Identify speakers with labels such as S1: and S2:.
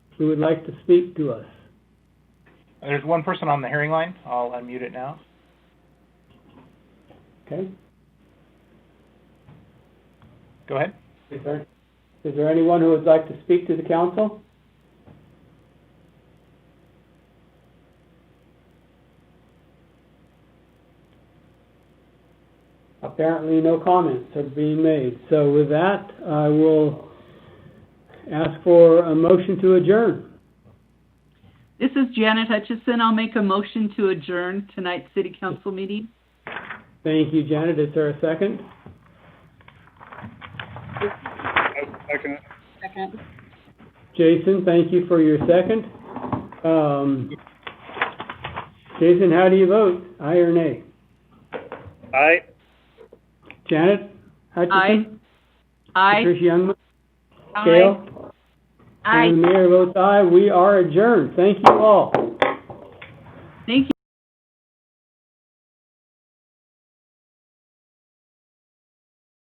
S1: who would like to speak to us?
S2: There's one person on the hearing line. I'll unmute it now.
S1: Okay?
S2: Go ahead.
S1: Is there, is there anyone who would like to speak to the council? Apparently, no comments are being made. So with that, I will ask for a motion to adjourn.
S3: This is Janet Hutchison. I'll make a motion to adjourn tonight's city council meeting.
S1: Thank you, Janet. Is there a second?
S4: Second.
S3: Second.
S1: Jason, thank you for your second. Um, Jason, how do you vote? Aye or nay?
S4: Aye.
S1: Janet?
S3: Aye.
S1: Hutchison?
S3: Aye.
S1: Patricia Youngman?
S3: Aye.
S1: Gail?
S3: Aye.
S1: And the mayor votes aye. We are adjourned. Thank you all.
S3: Thank you.